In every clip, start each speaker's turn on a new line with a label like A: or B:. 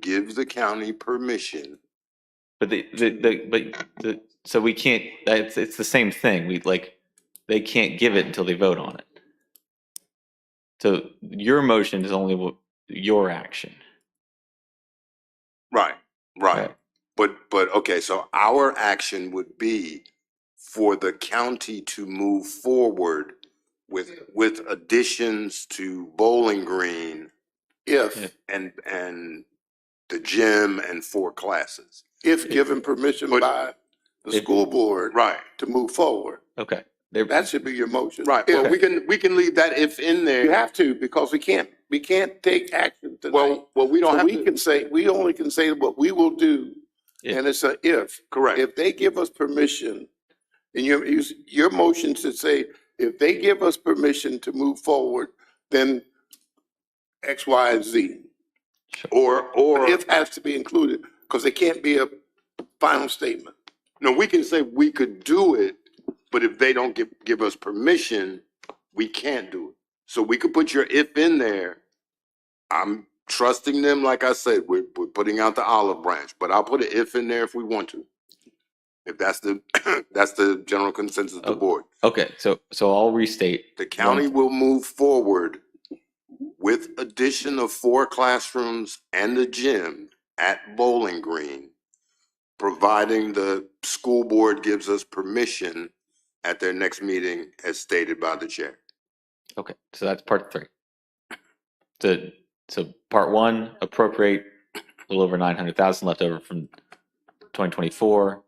A: give the county permission.
B: But the, the, the, but the, so we can't, it's, it's the same thing. We like, they can't give it until they vote on it. So your motion is only what- your action.
A: Right, right.
B: Right.
A: But, but, okay, so our action would be for the county to move forward with, with additions to Bowling Green
B: Yeah.
C: If,
A: and, and the gym and four classes.
C: if given permission
A: But-
C: by the
B: If-
C: school board
A: Right,
C: to move forward,
B: Okay. There-
C: that should be your motion.
A: right. Well,
C: If-
A: we can, we can leave that if in
C: You
A: there.
C: have to, because we can't, we can't take action tonight.
A: Well, well, we don't
C: So
A: have
C: we
A: to,
C: can say, we only can say what we will do,
B: Yeah.
C: and it's a if.
A: correct.
C: If they give us permission, and your, you- your motion should say, if they give us permission to move forward, then X, Y, and Z.
A: Or, or.
C: If has to be included, because it can't be a final statement.
A: No, we can say we could do it, but if they don't give, give us permission, we can't do it. So we could put your if in there. I'm trusting them, like I said, we're, we're putting out the olive branch, but I'll put an if in there if we want to. If that's the, that's the general consensus of the
B: Oh.
A: board.
B: Okay. So, so I'll restate.
A: The county will move forward with addition of four classrooms and the gym at Bowling Green, providing the school board gives us permission at their next meeting as stated by the chair.
B: Okay. So that's part three. The, so part one, appropriate a little over 900,000 left over from 2024.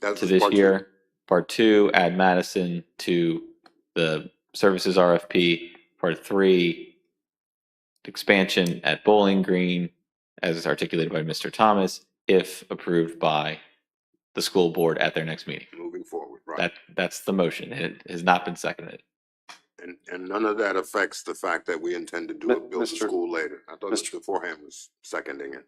A: That's
B: to
A: what
B: this
A: part two-
B: year. Part two, add Madison to the services RFP. Part three, expansion at Bowling Green, as is articulated by Mr. Thomas, if approved by the school board at their next meeting.
A: Moving forward, right.
B: That, that's the motion. It has not been seconded.
A: And, and none of that affects the fact that we intend to do
D: Mi-
A: a building
D: Mr.
A: school later. I thought
D: Mr.
A: Mr. Forehand was seconding it.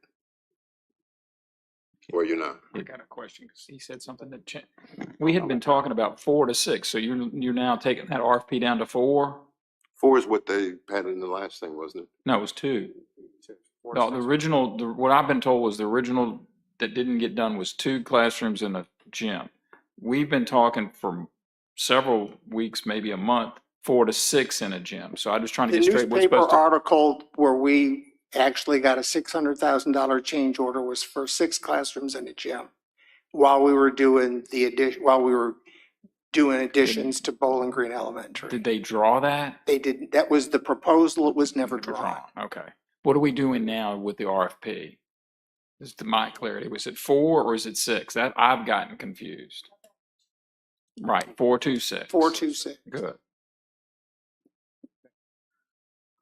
A: Or you're not.
E: I got a question because he said something that changed. We had been talking about four to six, so you're, you're now taking that RFP down to four?
A: Four is what they had in the last thing, wasn't it?
E: No, it was two. No, the original, the- what I've been told was the original that didn't get done was two classrooms and a gym. We've been talking for several weeks, maybe a month, four to six in a gym. So I'm just trying to
F: The
E: get straight what's
F: newspaper
E: supposed to.
F: article where we actually got a six hundred thousand dollar change order was for six classrooms and a gym. While we were doing the addition, while we were doing additions to Bowling Green Elementary.
E: Did they draw that?
F: They didn't, that was the proposal, it was never
E: Never
F: drawn.
E: drawn. Okay. What are we doing now with the RFP? Is to my clarity, was it four or is it six? That, I've gotten confused. Right, four, two, six.
F: Four, two, six.
E: Good.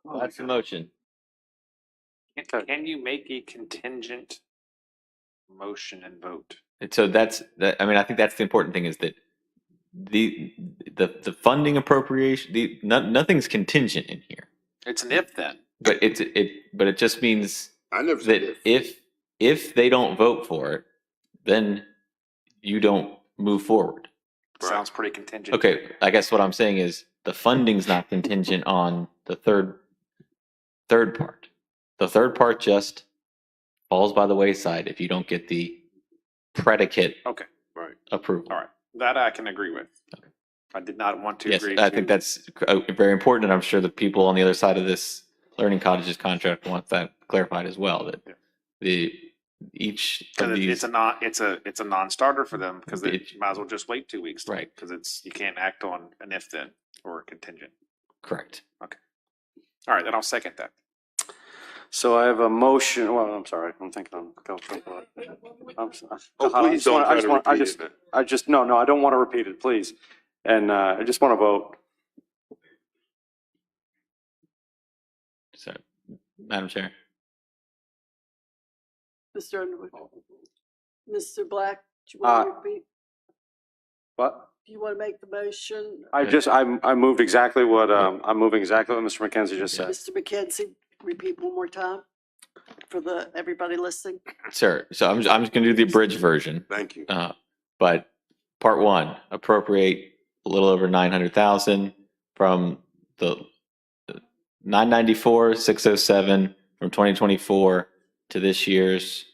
A: Oh,
B: That's the motion.
D: Can can you make a contingent motion and vote?
B: And so that's, that, I mean, I think that's the important thing is that the, the, the funding appropriation, the, no, nothing's contingent in here.
D: It's an if then.
B: But it's, it, but it just means
A: I never said
B: that
A: if.
B: if if they don't vote for it, then you don't move forward.
A: Right.
D: Sounds pretty contingent.
B: Okay, I guess what I'm saying is the funding's not contingent on the third third part. The third part just falls by the wayside if you don't get the predicate
D: Okay.
A: Right.
B: approval.
D: All right. That I can agree with. I did not want to
B: Yes,
D: agree.
B: I think
D: to-
B: that's uh, very important, and I'm sure the people on the other side of this Learning Cottages contract want that clarified as well. That
D: Yeah.
B: the each of
D: Cause it-
B: these
D: it's a non, it's a, it's a non-starter for them because they
B: It-
D: might as well just wait two weeks. then,
B: Right.
D: Cause it's, you can't act on an if then or a contingent.
B: correct.
D: All right, then I'll second that.
G: So I have a motion, well, I'm sorry, I'm thinking on Bill Trump. I'm sorry.
A: Oh,
G: I
A: please
G: just
A: don't
G: wanna- I
A: try
G: just
A: to
G: wanna- I
A: repeat
G: just-
A: it. man.
G: I just, no, no, I don't want to repeat it, please. And uh, I just want to vote.
B: So, Madam Chair.
H: Mr. Underwood. Mr. Black, do you
G: Uh,
H: want to repeat,
G: But
H: do you want to make the motion?
G: I just, I, I moved exactly what, um, I'm moving exactly what Mr. McKenzie just said.
H: Mr. McKenzie, repeat one more time for the, everybody listening.
B: Sure. So I'm, I'm just going to do the abridged version.
A: Thank you.
B: Uh, but part one, appropriate a little over 900,000 from uh, oh the 994, 607 from 2024 to this year's